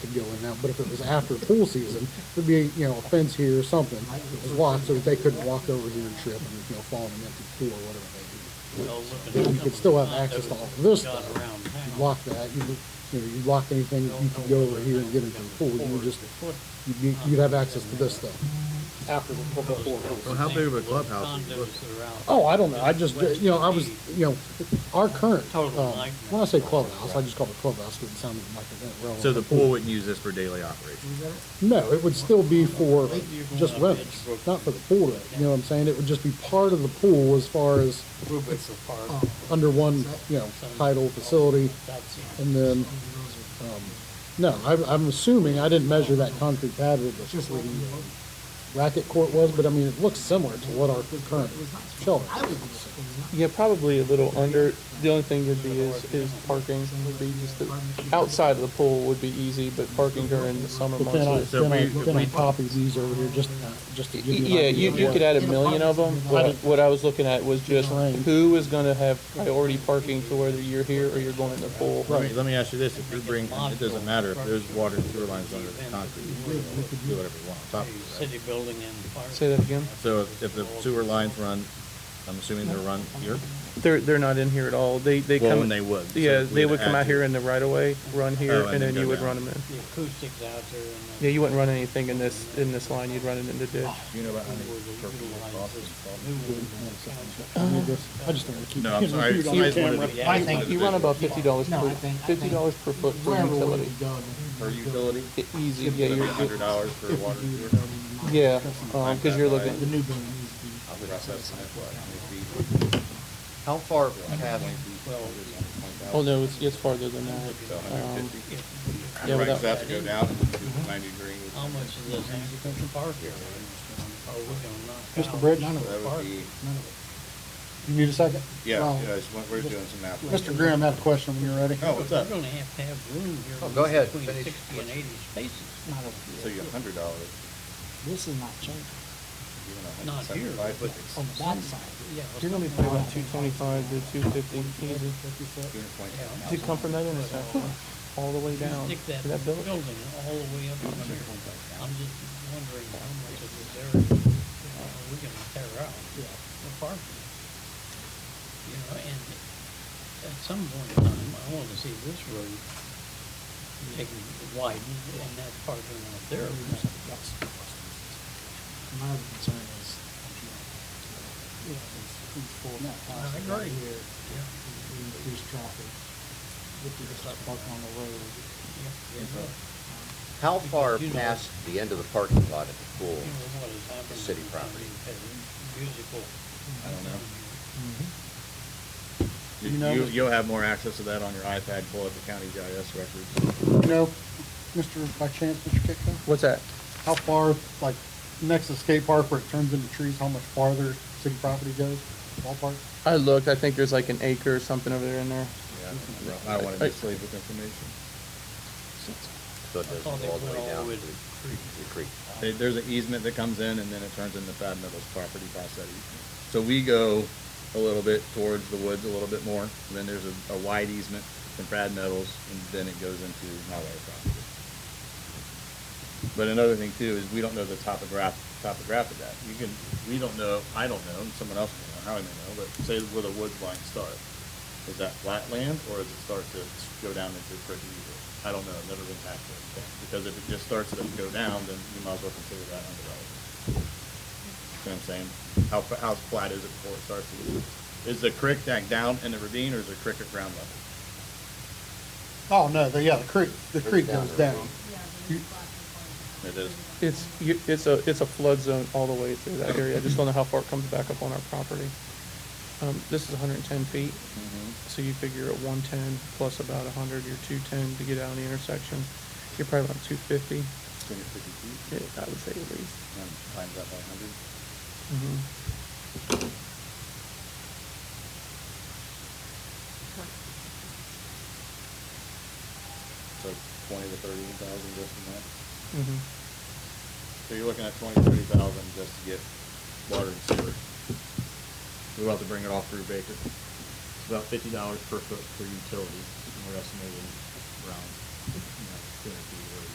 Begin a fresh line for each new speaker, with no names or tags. could go in now, but if it was after pool season, there'd be, you know, a fence here or something, it was locked, so that they couldn't walk over here and trip and, you know, fall in an empty pool or whatever they
You
could still have access to all of this stuff. do. You
Lock
lock that, you, you know, you lock anything, you could go over here and get into the pool, you would just, you'd, be- you'd have access to this stuff after, before pool
Well, how big of a clubhouse is it?
Oh, I don't know, I just, you know, I was, you know, our current, um, when I say clubhouse, I just call it clubhouse, because it sounded like a relevant.
So the pool wouldn't use this for daily operations?
No, it would still be for just renters, not for the pool, to- you know what I'm saying? It would just be part of the pool as far as under one, you know, title facility. And then, um, no, I'm, I'm assuming, I didn't measure that concrete pad with the the racket court was, but I mean, it looks similar to what our current shelter is.
Yeah, probably a little under. The only thing would be is, is parking would be just the, outside of the pool would be easy, but parking during the summer
But then I,
months. is-
So
then I,
if we-
then I
if we-
copy these over here just, just to give you an
Yeah,
idea.
you,
of
you
what-
could add a million of them. What, I- what I was looking at was just
Right.
who is gonna have priority parking to whether you're here or you're going in the pool.
Let me, let me ask you this, if you bring, it doesn't matter if there's water and sewer lines under the concrete, you can do whatever you want on top of that.
City building and fire.
Say that again?
So if if the sewer lines run, I'm assuming they run here?
They're, they're not in here at all. They, they come.
Well, and they would. so
Yeah,
we
they
had
would
to
come
add
out
to
here
it.
in the right of way, run
Oh,
here,
and
and
then
then you
go
would
down.
run them in.
The acoustics out there and. the-
Yeah, you wouldn't run anything in this, in this line. You'd run it in the ditch.
Do you know about how many
where they
turkeys are
utilize
crossing?
this new one that's out
I mean, this- I just don't want to keep.
No, I'm sorry. I just- I just wanted to-
I
wanted
think
to
You run
do-
about fifty dollars per, fifty dollars per foot for utility.
Per utility?
E- Easy, yeah,
That'd be
you're,
a hundred dollars for water. and sewer.
yeah, um, cause you're looking,
I would have said something like
How far past,
oh no, it's, it's farther than that. Um,
150.
yeah,
Right,
without-
so that's to go down and do the ninety degree.
How much is this agricultural park area? Are we gonna knock out?
Mr. Bridge,
That would be,
you need a second?
yeah,
Well,
yeah, it's what we're doing some math.
Mr. Graham had a question when you're ready.
Oh, what's up?
You're gonna have to have room here.
Oh, go ahead,
Between
finish.
sixty and eighty spaces,
So you're a hundred dollars,
This is not changing
even a
Not
hundred
here.
seventy-five, but
on
it's
that side.
yeah.
You're gonna be paying about two twenty-five to two fifty, easy,
two hundred twenty.
to come from that intersection, all the way down
Stick that
to that
building
building.
all the way up in here. I'm just wondering how much of this area are we gonna tear out for parking? You know, and at some point in time, I wanna see this road taken, widened, and that parking lot there.
Mm-hmm.
My other concern is. you know, it's- it's full of
I
cars right
agree.
here, we Reduce traffic. If you just start parking on the road.
how far past the end of the parking lot at the pool?
You know what has happened.
City
to
property.
the Musical.
I don't know. Mm-hmm.
You know-
You, you'll have more access to that on your iPad, pull up the county GIS records.
You know, Mr., by chance, Mr. Kitco,
What's that?
how far, like, next to skate park where it turns into trees, how much farther city property goes, ballpark?
I looked, I think there's like an acre or something over there in there.
Yeah, I don't wanna mislead with information.
So it doesn't
Oh, they
go all the
went
way
all
down
the
to
way to
the creek.
There- There's an easement that comes in and then it turns into Fad Meadows property past that easement. So we go a little bit towards the woods a little bit more, and then there's a, a wide easement from Fad Meadows, and then it goes into highway property. But another thing too is we don't know the topograph, topograph of that. You can, we don't know, I don't know, and someone else may know, Howie may know, but say where the woods line start. Is that flat land or does it start to go down into the creek? I don't know, I've never been back there. Because if it just starts to go down, then you might as well consider that undeveloped. You know what I'm saying? How, fa- how flat is it before it starts to, is the creek back down in the ravine or is the creek at ground level?
Oh, no, the, yeah, the creek, the creek
down
goes
the
down.
road.
It is.
It's, you, it's a, it's a flood zone all the way through that area. I just don't know how far it comes back up on our property. Um, this is hundred and ten feet, so you figure at one ten plus about hundred, you're two ten to get out of the intersection. You're probably about two fifty,
It's gonna be fifty feet,
yeah, I would say at least.
and times that by a hundred.
Mm-hmm,
So twenty to thirty thousand just in that.
Mm-hmm.
So you're looking at twenty, thirty thousand just to get water and sewer. We'll have to bring it all through Baker. It's about fifty dollars per foot for utility, and we're estimating around, you know, two hundred feet.